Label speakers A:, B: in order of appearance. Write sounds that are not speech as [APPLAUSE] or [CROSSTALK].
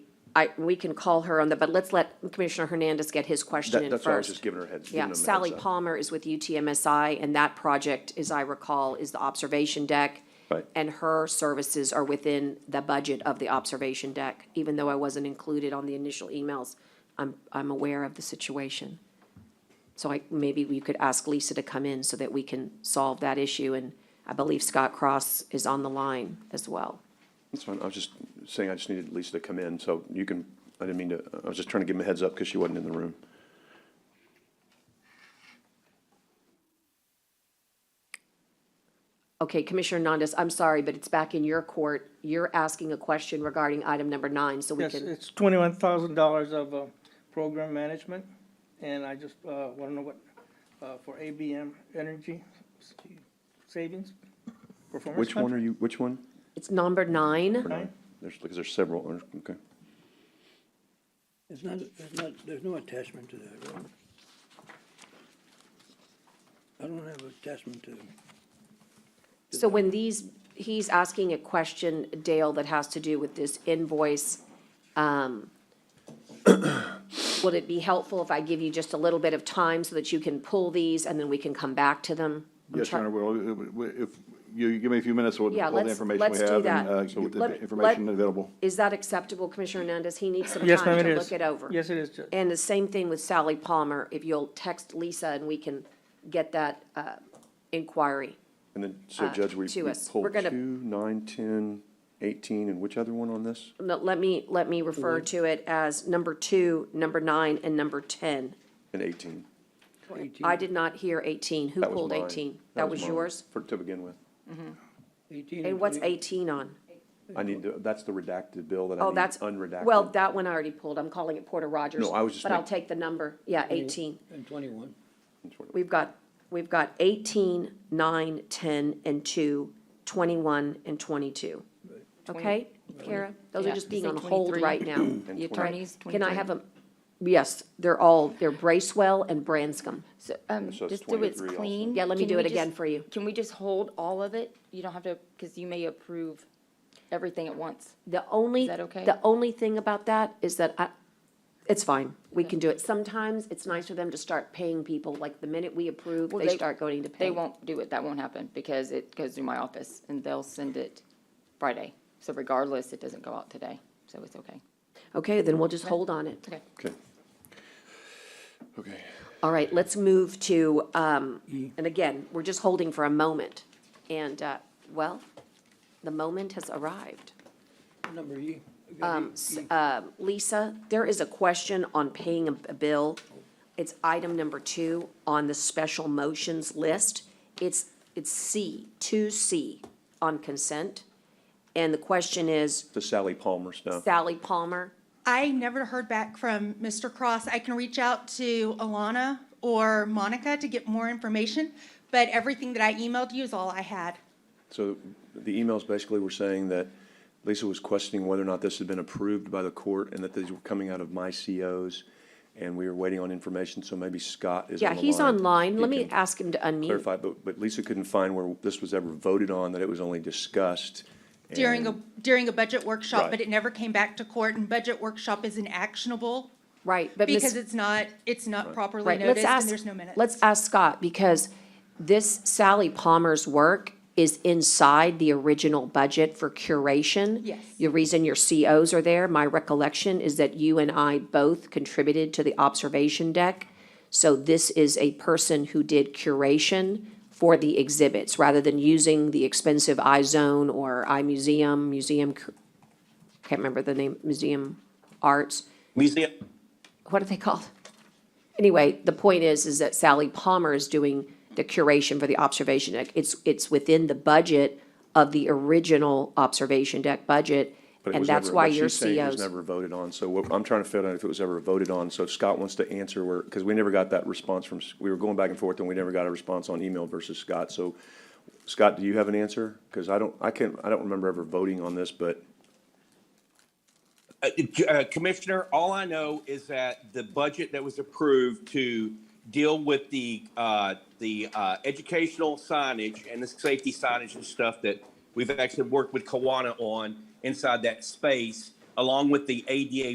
A: I, we can call her on the, but let's let Commissioner Hernandez get his question
B: That-
A: in
B: That's
A: first.
B: why I was just giving her a heads. giving
A: Yeah,
B: them a heads
A: Sally
B: up.
A: Palmer is with UTMSI, and that project, as I recall, is the observation deck.
B: Right.
A: And her services are within the budget of the observation deck, even though I wasn't included on the initial emails. I'm, I'm aware of the situation. So I, maybe we could ask Lisa to come in so that we can solve that issue, and I believe Scott Cross is on the line as well.
B: That's fine. I was just saying I just needed Lisa to come in, so you can, I didn't mean to, I was just trying to give them a heads up because she wasn't in the room.
A: Okay, Commissioner Hernandez, I'm sorry, but it's back in your court. You're asking a question regarding item number nine, so we
C: Yes,
A: can,
C: it's twenty-one thousand dollars of, uh, program management, and I just, uh, wanna know what, uh, for ABM Energy Savings Performance.
B: Which one are you, which one?
A: it's number nine.
B: Or nine? There's, because there's several, or- okay.
D: It's not, there's not, there's no attachment to that, right? I don't have attachment to,
A: So when these, he's asking a question, Dale, that has to do with this invoice, um, [COUGHS] would it be helpful if I give you just a little bit of time so that you can pull these and then we can come back to them? I'm
E: Yes,
A: try-
E: Your Honor, well, uh, if, you give me a few minutes, we'll
A: Yeah,
E: pull the
A: let's-
E: information
A: let's
E: we
A: do
E: have
A: that.
E: and uh, get
A: Let-
E: the
A: let-
E: information available.
A: Is that acceptable, Commissioner Hernandez? He needs some
C: Yes,
A: time
C: ma'am, it
A: to
C: is.
A: look it over.
C: Yes, it is, Judge.
A: And the same thing with Sally Palmer, if you'll text Lisa and we can get that, uh, inquiry.
B: And then, so
A: Uh,
B: Judge, we
A: to
B: we
A: us. We're
B: pulled
A: gonna-
B: two, nine, 10, 18, and which other one on this?
A: No, Let me, let me refer
B: Mm-hmm.
A: to it as number two, number nine, and number ten.
B: And 18.
A: I did not hear 18. Who
B: That was
A: pulled
B: mine.
A: 18? That was
B: mine
A: yours?
B: For, to begin with.
D: eighteen.
A: And what's 18 on?
B: I need, to- that's the redacted bill that I
A: Oh,
B: need
A: that's,
B: unredacted.
A: well, that one I already pulled. I'm calling it Porter Rogers.
B: No, I was just
A: But I'll
B: make- Mm-hmm.
A: take the number. Yeah, 18.
D: And twenty-one.
A: We've got, we've got 18, 9, 10, and 2, 21, and 22. Okay, Kara? Those are
F: Yeah,
A: just being
F: say
A: on hold
F: 23.
A: right now.
F: The attorneys,
A: Can I
F: 23.
A: have a, yes, they're all, they're Bracewell and Branscombe.
F: So, um,
B: So it's
F: just do it's
B: 23 also.
F: clean.
A: Yeah, let me
F: Can
A: do
F: we
A: it again
F: just-
A: for you.
F: Can we just hold all of it? You don't have to, because you may approve everything at once.
A: The only,
F: Is that okay?
A: the only thing about that is that I, it's fine, we can do it. Sometimes it's nice for them to start paying people, like the minute we approve,
F: Well,
A: they start going to pay.
F: They won't do it, that won't happen, because it goes through my office, and they'll send it Friday. So regardless, it doesn't go out today, so it's okay.
A: Okay, then we'll just hold on it.
F: Okay.
B: Okay. Okay.
A: All right, let's move to, um, and again, we're just holding for a moment. And, uh, well, the moment has arrived.
D: Number E.
A: Um, s- uh, Lisa, there is a question on paying a a bill. It's item number two on the special motions list. It's, it's C, two C on consent. And the question is
B: The Sally Palmer
G: Oh.
B: stuff.
A: Sally Palmer.
G: I never heard back from Mr. Cross. I can reach out to Alana or Monica to get more information, but everything that I emailed you is all I had.
B: So the emails basically were saying that Lisa was questioning whether or not this had been approved by the court and that these were coming out of my COs. And we were waiting on information, so maybe Scott is on
A: Yeah,
B: the
A: he's
B: line.
A: online.
B: He
A: Let me
B: can
A: ask him to unmute.
B: Clarify, but, but Lisa couldn't find where this was ever voted on, that it was only discussed.
G: During a,
B: and-
G: during a budget workshop,
B: Right.
G: but it never came back to court, and budget workshop isn't actionable
A: Right, but Ms.
G: because it's not, it's not properly
A: Right, let's
G: noticed
A: ask.
G: and there's no minutes.
A: Let's ask Scott, because this Sally Palmer's work is inside the original budget for curation.
G: Yes.
A: The reason your COs are there, my recollection is that you and I both contributed to the observation deck. So this is a person who did curation for the exhibits, rather than using the expensive iZone or iMuseum, Museum, Cur- can't remember the name, Museum Arts
H: Museum,
A: what are they called? Anyway, the point is, is that Sally Palmer is doing the curation for the observation deck. It's, it's within the budget of the original observation deck budget,
B: but it
A: and
B: was
A: that's
B: never-
A: why
B: but
A: your
B: she's saying It was
A: COs.
B: never voted on, so what, I'm trying to figure out if it was ever voted on, so if Scott wants to answer where, because we never got that response from, S- we were going back and forth and we never got a response on email versus Scott, so Scott, do you have an answer? Because I don't, I can't, I don't remember ever voting on this, but
H: uh, uh, Commissioner, all I know is that the budget that was approved to deal with the, uh, the uh, educational signage and the safety signage and stuff that we've actually worked with Kiwanis on inside that space, along with the ADA